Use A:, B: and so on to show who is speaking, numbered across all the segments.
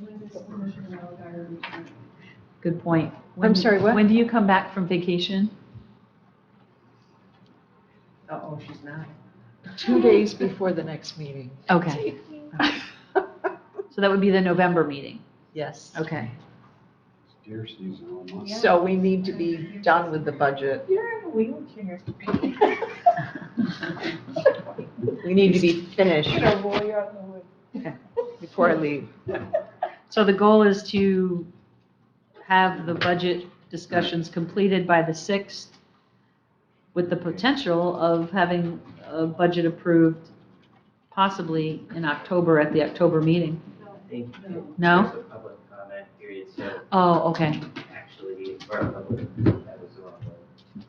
A: When does Commissioner Wildfire return?
B: Good point. When
C: I'm
B: do-
C: sorry, what?
B: When do you come back from vacation?
D: Uh-oh, she's not.
C: Two days before the next meeting.
B: Okay. So that would be the November meeting.
C: Yes.
B: Okay.
E: Deer season almost.
C: So we need to be done with the budget.
A: You're in a wheelchair.
C: We need to be finished
A: Gonna roll you out in the woods.
C: before I leave.
B: So the goal is to have the budget discussions completed by the 6th with the potential of having a budget approved possibly in October at the October meeting.
F: Thank you.
B: No?
F: There's a public comment period, so
B: Oh, okay.
F: actually, or public, that was the wrong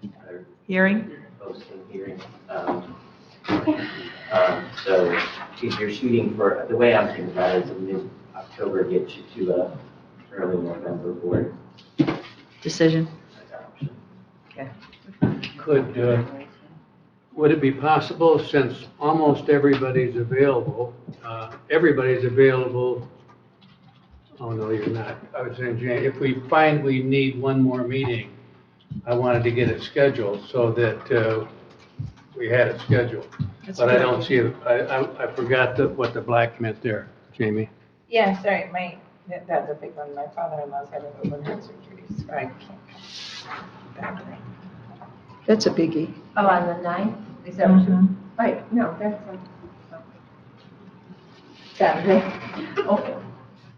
F: word. Other
B: Hearing?
F: Posting hearing. um, um, So if you're shooting for, the way I'm thinking about it is a mid-October gets you to a early November board
B: Decision.
F: adoption.
G: Could, uh, would it be possible, since almost everybody's available, uh, everybody's available, oh, no, you're not, I was saying, Jan, if we find we need one more meeting, I wanted to get it scheduled so that uh, we had it scheduled. But I don't see, it. I, I- I forgot the- what the black meant there, Jamie.
H: Yeah, sorry, my, that- that's a big one. My father-in-law's having open heart surgery, so I can't come back.
C: That's a biggie.
D: Oh, on the ninth, is that what
C: Mm-hmm.
D: you, wait, no, that's on. Saturday. Oh,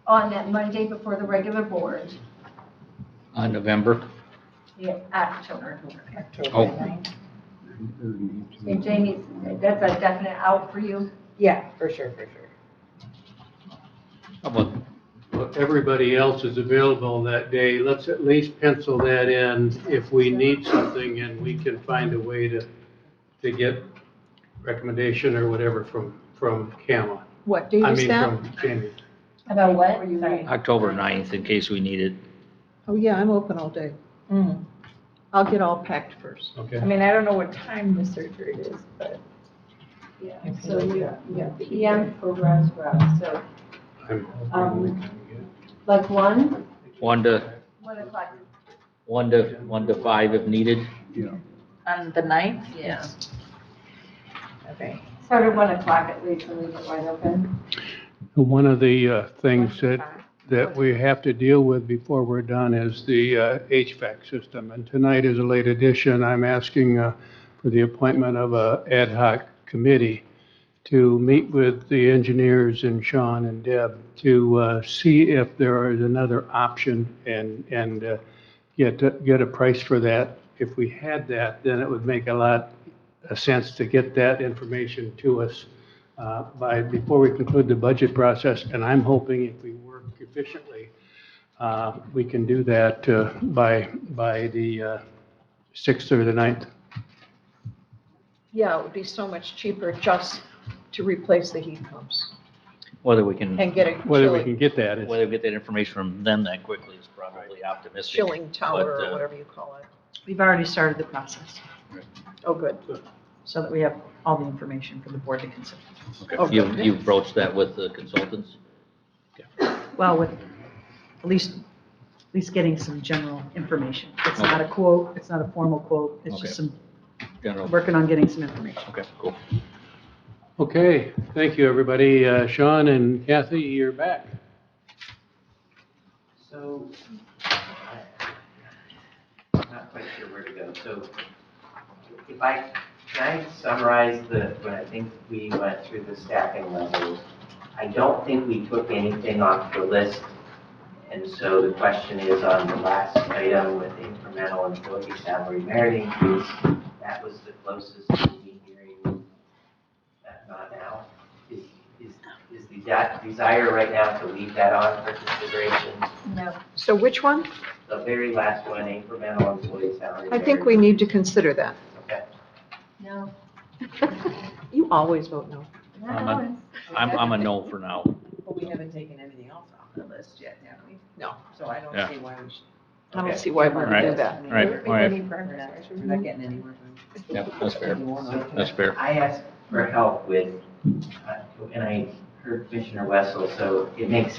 D: On that Monday before the regular board,
I: On November?
D: yeah, October.
I: Oh.
H: October ninth.
D: And Jamie, that's a definite out for you?
H: Yeah, for sure, for sure.
I: How about
G: Well, everybody else is available that day, let's at least pencil that in. If we need something and we can find a way to, to get recommendation or whatever from, from Kama.
C: What date
G: I
C: is
G: mean,
C: that?
G: from Jamie.
D: About what?
A: Were you-
D: Sorry.
I: October 9th in case we need it?
C: Oh, yeah, I'm open all day.
A: Hmm.
H: Mm.
C: I'll get all packed first.
H: I
G: Okay.
H: mean, I don't know what time the surgery is, but
A: Yeah,
H: I
A: so
H: can do
A: you,
H: that.
A: yeah, PM for Rose Rock, so
G: I'm-
A: Um, like one?
I: One to,
D: One o'clock.
I: one to, one to five if needed?
H: on the ninth?
D: Yeah.
H: Okay.
A: Start at one o'clock at least and leave it wide open.
G: One of the uh, things that, that we have to deal with before we're done is the uh, HVAC system. And tonight is a late addition. I'm asking uh, for the appointment of a ad hoc committee to meet with the engineers and Sean and Deb to uh, see if there is another option and, and uh, get, get a price for that. If we had that, then it would make a lot of sense to get that information to us uh, by, before we conclude the budget process, and I'm hoping if we work efficiently, uh, we can do that uh, by, by the uh, 6th or the 9th.
C: Yeah, it would be so much cheaper just to replace the heat pumps
I: Whether we can,
C: and get a
G: Whether we
C: chilling,
G: can get that is,
I: whether we get that information from them that quickly is probably optimistic.
C: chilling tower
I: but,
C: or
I: uh,
C: whatever you call it.
B: We've already started the process
C: Oh, good.
B: so that we have all the information for the board to consider.
C: Okay.
I: You, you broached that with the consultants?
B: Well, with, at least, at least getting some general information. It's not a quote, it's not a formal quote, it's just some,
I: General,
B: working on getting some information.
I: okay, cool.
G: okay, thank you, everybody. Uh, Sean and Kathy, you're back.
F: So, I- I'm not quite sure where to go. So if I, can I summarize the, when I think we went through the staffing levels, I don't think we took anything off the list. And so the question is on the last item with incremental employee salary merit increase, that was the closest to me hearing that not now. Is, is, is the de- desire right now to leave that on for consideration?
D: No.
C: So which one?
F: The very last one, incremental employee salary.
C: I think we need to consider that.
F: Okay.
D: No.
C: You always vote no.
D: Not
I: I'm
D: always.
I: I'm, I'm a no for now.
H: But we haven't taken anything else off the list yet, have we?
C: No.
H: So I don't
I: Yeah.
H: see why we should.
C: I
F: Okay.
C: don't see why we would do
I: Right.
C: that.
I: Right, right.
H: We're not getting anywhere.
I: Yeah, that's fair.
F: So
I: That's fair.
F: I asked for help with, uh, and I heard Commissioner Wessel, so it makes